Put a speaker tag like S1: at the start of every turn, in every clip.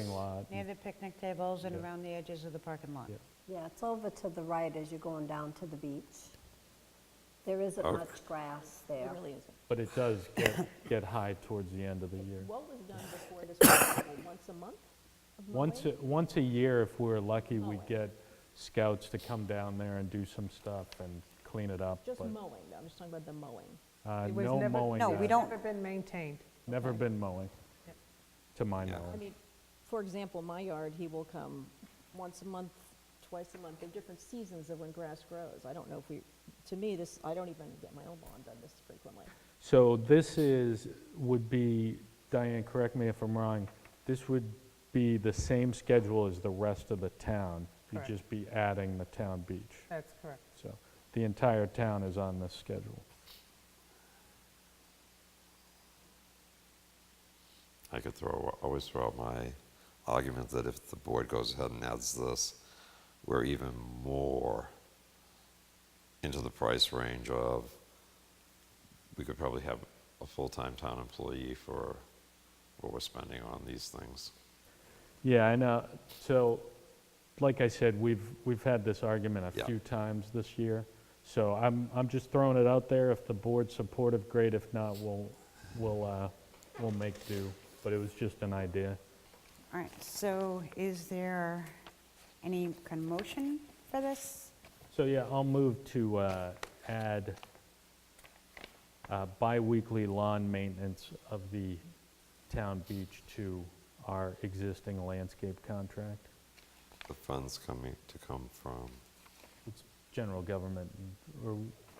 S1: lot.
S2: near the picnic tables and around the edges of the parking lot.
S1: Yep.
S3: Yeah, it's over to the right as you're going down to the beach. There isn't
S4: Okay.
S3: much grass there.
S5: It really isn't.
S1: But it does get, get high towards the end of the year.
S5: What was done before this, festival? once a month? of
S1: Once,
S5: mowing?
S1: a- once a year, if we were lucky, we'd
S5: Mowing.
S1: get scouts to come down there and do some stuff and clean it up.
S5: Just
S1: but,
S5: mowing, though. I'm just talking about the mowing.
S1: uh,
S6: It was
S1: No
S6: never-
S1: mowing.
S2: No, we
S1: done.
S2: don't-
S6: Never been maintained.
S1: Never been mowing, to my
S4: Yeah.
S5: I
S1: knowledge.
S5: mean, for example, my yard, he will come once a month, twice a month, in different seasons of when grass grows. I don't know if we, to me, this, I don't even get my own lawn done this frequently.
S1: So this is, would be, Diane, correct me if I'm wrong, this would be the same schedule as the rest of the town. You'd
S6: Correct.
S1: just be adding the town beach.
S6: That's correct.
S1: So the entire town is on this schedule.
S4: I could throw, always throw out my argument that if the board goes ahead and adds this, we're even more into the price range of, we could probably have a full-time town employee for what we're spending on these things.
S1: Yeah, I know. So, like I said, we've, we've had this argument a
S4: Yeah.
S1: few times this year. So I'm, I'm just throwing it out there. If the board's supportive, great. If not, we'll, we'll, uh, we'll make do. But it was just an idea.
S2: All right, so is there any kind of motion for this?
S1: So, yeah, I'll move to uh, add uh, biweekly lawn maintenance of the town beach to our existing landscape contract.
S4: The funds coming, to come from,
S1: It's general government, and- or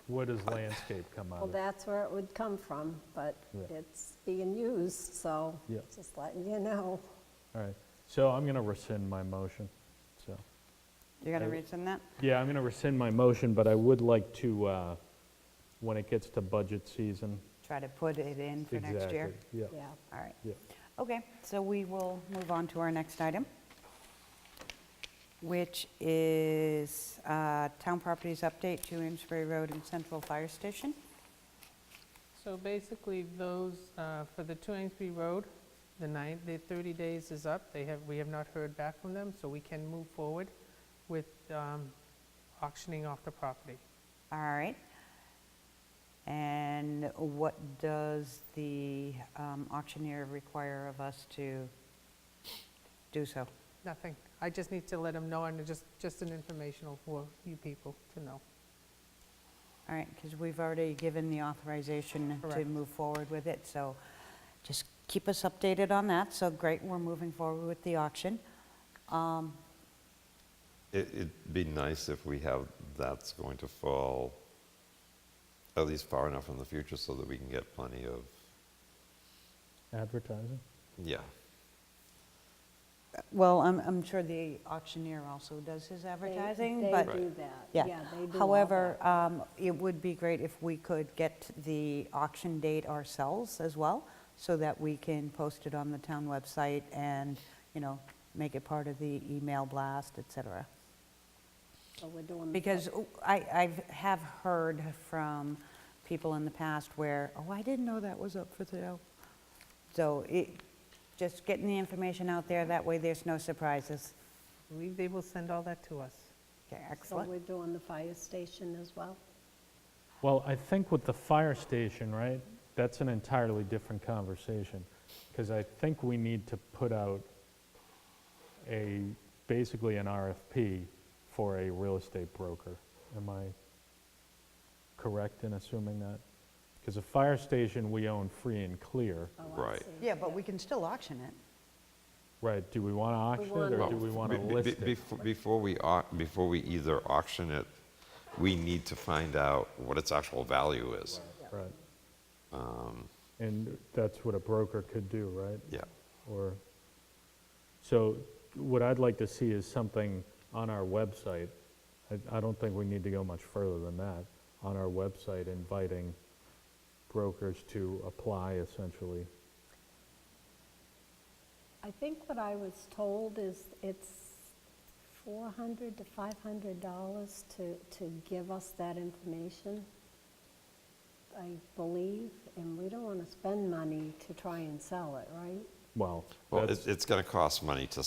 S1: what does landscape come out
S3: Well,
S1: of?
S3: that's where it would come from, but
S1: Yeah.
S3: it's being used, so
S1: Yeah.
S3: just letting you know.
S1: All right, so I'm going to rescind my motion, so.
S2: You're going
S1: I-
S2: to rescind that?
S1: Yeah, I'm going to rescind my motion, but I would like to, uh, when it gets to budget season.
S2: Try to put it in for next year?
S1: Exactly, Yeah,
S3: Yeah,
S2: All right.
S1: yeah.
S2: Okay, so we will move on to our next item, which is uh, Town Properties Update to Amesbury Road and Central Fire Station.
S6: So basically, those, uh, for the 2 Amesbury Road, the nine, the 30 days is up. They have, we have not heard back from them, so we can move forward with um, auctioning off the property.
S2: All right. And what does the um, auctioneer require of us to do so?
S6: Nothing. I just need to let them know, and just, just an informational for you people to know.
S2: All right, because we've already given the authorization to
S6: Correct.
S2: move forward with it, so just keep us updated on that. So great, we're moving forward with the auction.
S4: it, it'd be nice if we have, that's going to fall at least far enough in the future so that we can get plenty of,
S1: Advertising?
S4: yeah,
S2: Well, I'm, I'm sure the auctioneer also does his
S3: They-
S2: advertising,
S3: They
S2: but,
S3: do that.
S2: yeah.
S3: they do all
S2: However, um, it would be great if we could get the auction date ourselves as well, so that we can post it on the town website and, you know, make it part of the email blast, et cetera.
S3: that. So we're doing. the
S2: Because I, I've, have heard from people in the past where, oh, I didn't know that was up for sale. So it, just getting the information out there, that way there's no surprises.
S6: I believe they will send all that to us.
S2: Okay,
S3: So
S2: excellent.
S3: we're doing the fire station as well?
S1: Well, I think with the fire station, right, that's an entirely different conversation, because I think we need to put out a, basically an RFP for a real estate broker. Am I correct in assuming that? Because the fire station, we own free and clear.
S3: Oh, I
S4: right.
S3: see.
S2: Yeah, but we can still auction it.
S1: Right, do we want to auction it, or
S4: Well,
S1: do we want to
S4: be- be-
S1: list
S4: be-
S1: it?
S4: befo- Before we, au- before we either auction it, we need to find out what its actual value is.
S1: Right.
S4: um,
S1: And that's what a broker could do, right?
S4: Yeah,
S1: Or, so what I'd like to see is something on our website. I- I don't think we need to go much further than that. On our website inviting brokers to apply essentially.
S3: I think what I was told is it's 400 to 500 dollars to, to give us that information, I believe, and we don't want to spend money to try and sell it, right?
S1: Well,
S4: well,
S1: that's-
S4: it's, it's gonna cost money to